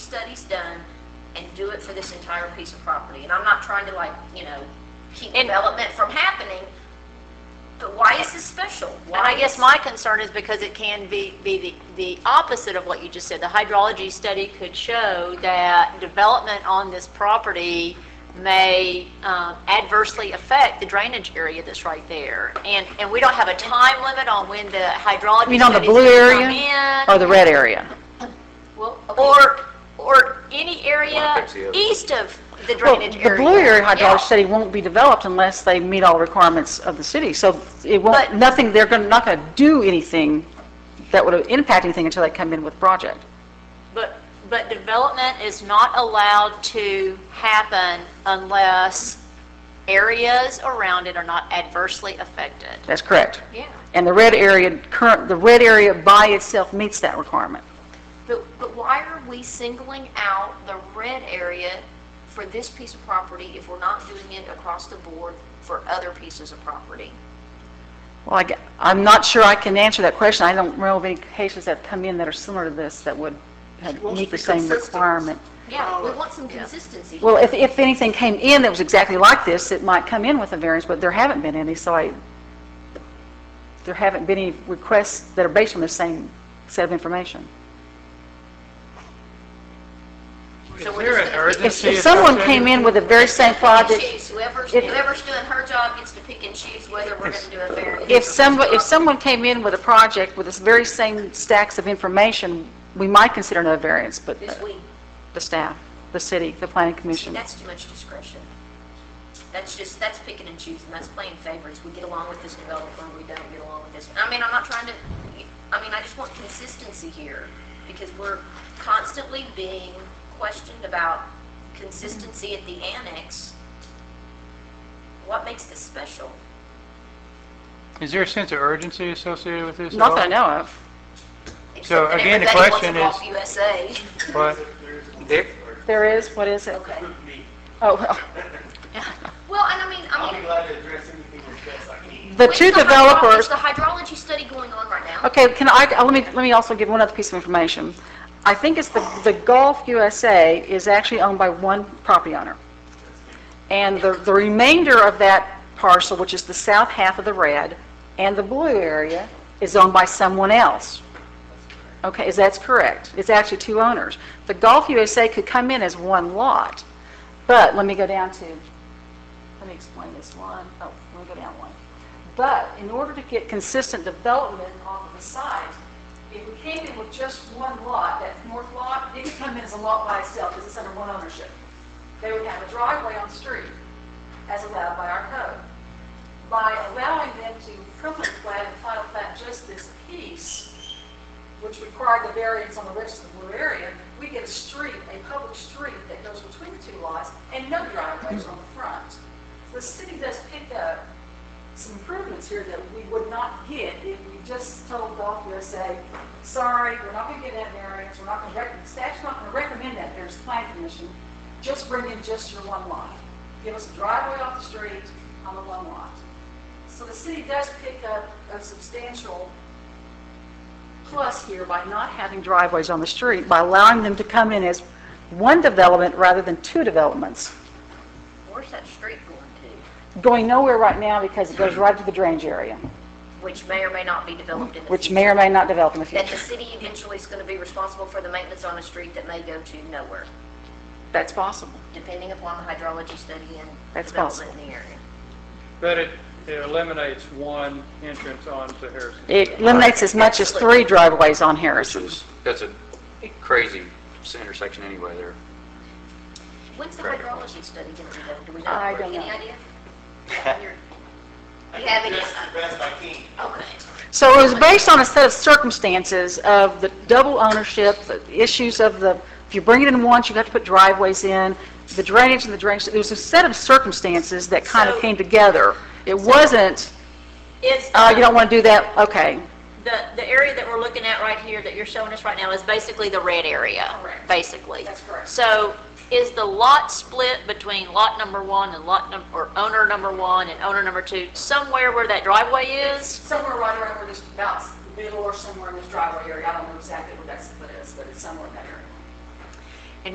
he's done and do it for this entire piece of property. And I'm not trying to like, you know, keep And- development from happening, but why is this special? And Why I guess is- my concern is because it can be, be the, the opposite of what you just said. The hydrology study could show that development on this property may um, adversely affect the drainage area that's right there. And, and we don't have a time limit on when the hydrology. You mean on the studies blue can come area in. or the red area? Well, Or, or any area fix the other. east of the Well, drainage area. the blue area Yeah. hydraulic study won't be developed unless they meet all requirements of the city. So it But- won't, nothing, they're gonna, not gonna do anything that would impact anything until they come in with project. But, but development is not allowed to happen unless areas around it are not adversely affected. That's correct. Yeah. And the red area, current, the red area by itself meets that requirement. But, but why are we singling out the red area for this piece of property if we're not doing it across the board for other pieces of property? Well, I, am not sure I can answer that question. I don't know of any cases that come in that are similar to this that would have wants to meet the be same consistent. requirement. Yeah, we want some consistency. Well, if, if anything came in that was exactly like this, it might come in with a variance, but there haven't been any, so I, there haven't been any requests that are based on the same set of information. Is So we're there just an gonna- If, urgency? if someone came associated in with the very same project, Choose whoever's, if- whoever's doing her job gets to pick and choose whether we're gonna do a variance. if someone, if someone came in with a project with this very same stacks of information, we might consider another variance, but This the- week, the staff, the city, the planning commission. that's too much discretion. That's just, that's picking and choosing, that's playing favorites. We get along with this developer, we don't get along with this. I mean, I'm not trying to, I mean, I just want consistency here, because we're constantly being questioned about consistency at the annex. What makes this special? Is there a sense of urgency associated with this? at Not that I all? know of. Except that again, the everybody wants question them off is- USA. But there, There is, what is it? Okay. Oh, well. Well, and I mean, I mean, glad to address anything that's best I can. The with two the hydro- developers, with The hydrology study going on right now. Okay, can I, uh, let me, let me also give one other piece of information. I think it's the, the Gulf USA is actually owned by one property owner. And the, the remainder of that parcel, which is the south half of the red and the blue area, is owned by someone else. Okay, is that's correct? It's actually two owners. The Gulf USA could come in as one lot, but let me go down to, let me explain this one. Oh, let me go down one. But in order to get consistent development off of the site, if we came in with just one lot, that north lot, it could come in as a lot by itself because it's under one ownership. They would have a driveway on the street as allowed by our code. By allowing them to preliminary plat and final plat just this piece, which required the variance on the rest of the blue area, we get a street, a public street that goes between the two lots and no driveways on the front. The city does pick up some improvements here that we would not get if we just told Golf USA, sorry, we're not gonna get that variance, we're not gonna recommend, staff's not gonna recommend that, there's plan commission, just bring in just your one lot. Give us a driveway off the street on the one lot. So the city does pick up a substantial plus here by not having driveways on the street, by allowing them to come in as one development rather than two developments. Where's that street going to? Going nowhere right now because it goes right to the drainage area, Which may or may not be developed in the which future. may or may not develop in the That the future. city eventually is going to be responsible for the maintenance on a street that may go to nowhere, That's possible. depending upon the hydrology study and That's development in the area. But it it eliminates one entrance onto Harrison. It eliminates as much as three driveways on which Harrison. is, that's a crazy intersection anyway there. When's the Correct. hydrology study going to be done? Do we know? I don't Any know. idea? You're- You have any? Address the best I can. Okay. So it was based on a set of circumstances of the double ownership, the issues of the, if you bring it in once, you have to put driveways in, the drainage and the drainage, there was a set of circumstances that kind of So- came together. It wasn't, Is, oh, you don't want to do that, okay. um, the, the area that we're looking at right here, that you're showing us right now, is basically the red area, Correct. basically. That's correct. So is the lot split between lot number one and lot num, or owner number one and owner number two, somewhere where that driveway is? Somewhere right around where this, about middle or somewhere in this driveway area, I don't know exactly where that split is, but it's somewhere in that area.